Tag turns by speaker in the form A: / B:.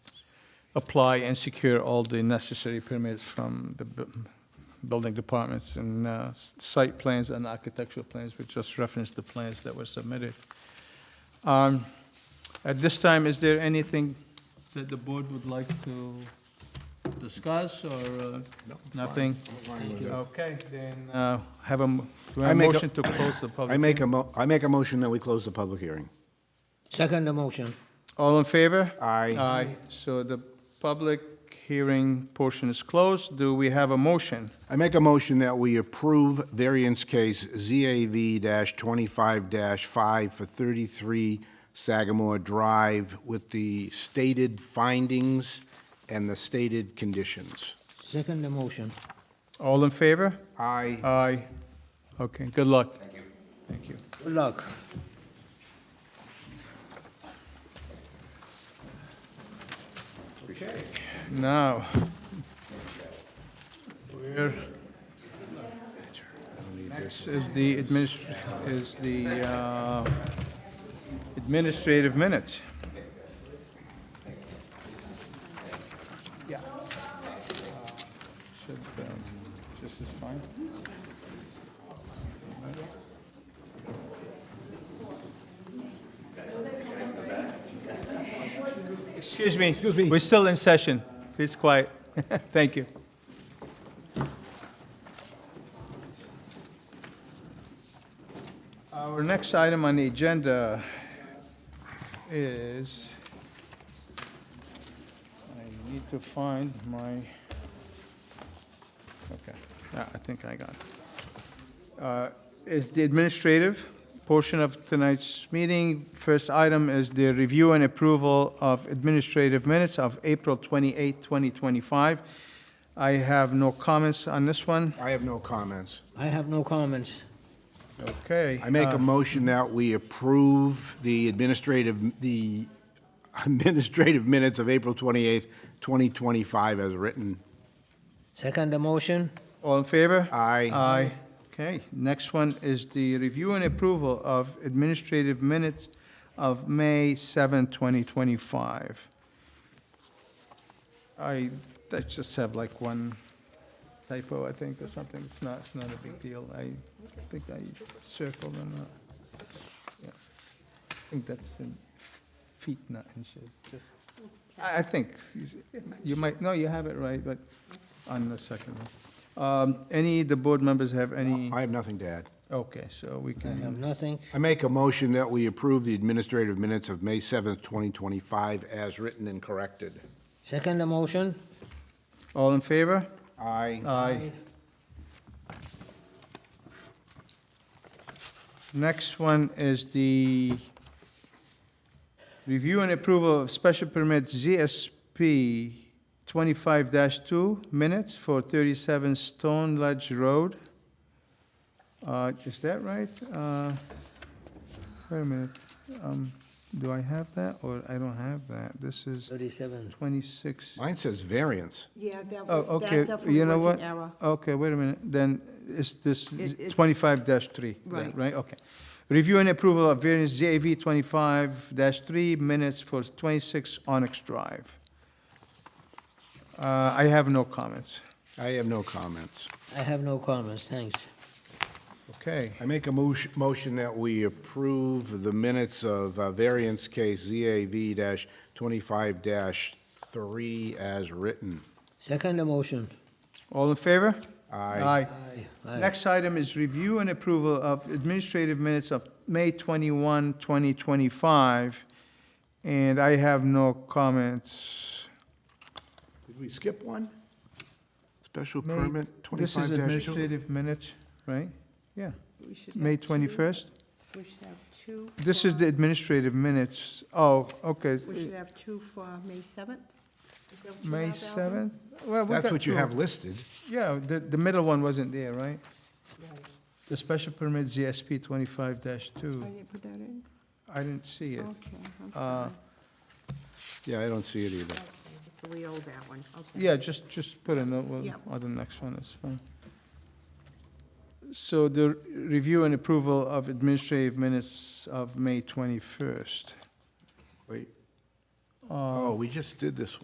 A: apply and secure all the necessary permits from the bu- building departments and uh, s- site plans and architectural plans, which just reference the plans that were submitted. Um, At this time, is there anything that the board would like to discuss or uh, nothing? Okay, then uh, have a, m- do I have
B: I
A: a
B: make a-
A: motion to close the public.
B: I make a mo, I make a motion that we close the public hearing.
C: Second the motion.
A: All in favor?
B: Aye.
A: Aye. So the public hearing portion is closed. Do we have a motion?
B: I make a motion that we approve variance case ZAV-25-5 for 33 Sagamore Drive with the stated findings and the stated conditions.
C: Second the motion.
A: All in favor?
B: Aye.
A: Aye. Okay, good luck. Thank you. Thank you.
C: Good luck.
A: Now, we're, next is the adminis, is the uh, administrative minutes. Yeah. Uh, Should, um, just as fine. Excuse me. Excuse me. We're still in session. Please quiet. Thank you. Our next item on the agenda is, I need to find my, okay, Ah, I think I got it is the administrative portion of tonight's meeting. First item is the review and approval of administrative minutes of April 28, 2025. I have no comments on this one.
B: I have no comments.
C: I have no comments.
A: Okay.
B: I make
A: uh,
B: a motion that we approve the administrative, the administrative minutes of April 28th, 2025 as written.
C: Second the motion.
A: All in favor?
B: Aye.
A: Aye. Okay, next one is the review and approval of administrative minutes of May 7, 2025. I, I just have like one typo, I think, or something, it's not, it's not a big deal, I think I circled them up. Yeah. I think that's in feet, not inches, just, I, I think, you might, no, you have it right, but on the second one. Um, Any, the board members have any,
B: I have nothing to add.
A: okay, so we
C: I have
A: can,
C: nothing.
B: I make a motion that we approve the administrative minutes of May 7th, 2025 as written and corrected.
C: Second the motion.
A: all in favor?
B: Aye.
A: Aye. Next one is the review and approval of special permit ZSP 25-2 minutes for 37 Stone Ledge Road. Uh, Is that right? Uh, Wait a minute. Um, Do I have that, or I don't have that? This is
C: Thirty-seven.
A: 26.
B: Mine says variance.
D: Yeah, that
A: Oh,
D: was,
A: okay,
D: that
A: you
D: definitely
A: know
D: was
A: what?
D: an error.
A: Okay, wait a minute, then it's this
D: It- it's-
A: twenty-five three,
D: Right.
A: right, okay. Review and approval of variance ZAV twenty-five three minutes for twenty-six Onyx Drive. Uh, I have no comments,
B: I have no comments.
C: I have no comments, thanks.
A: okay.
B: I make a motion, motion that we approve the minutes of uh, variance case ZAV-25-3 as written.
C: Second the motion.
A: All in favor?
B: Aye.
C: Aye. Aye.
A: Next item is review and approval of administrative minutes of May 21, 2025, and I have no comments.
B: Did we skip one? Special
A: May-
B: permit oh?
A: This is
B: 25-2?
A: administrative minutes, right? Yeah,
D: We should
A: May
D: have two-
A: 21st.
D: We should have two.
A: This is
D: for-
A: the administrative minutes. Oh, okay. uh,
D: We should have two for May 7th. Is that what you
A: May
D: have, Alvin?
A: 7th? Well, we
B: That's
A: got
B: what you
A: two.
B: have listed.
A: Yeah, the, the middle one wasn't there, right? The special permit ZSP 25-2.
D: I didn't put that in?
A: I didn't see it. Uh,
D: Okay, I'm Oh, sorry.
B: Yeah, I don't see it either.
D: So we owe that one, okay.
A: Yeah, just, just put a note
D: Yeah.
A: on- on the next one, it's fine. So the review and approval of administrative minutes of May 21st. Um,
B: Wait. Oh, we just did this one.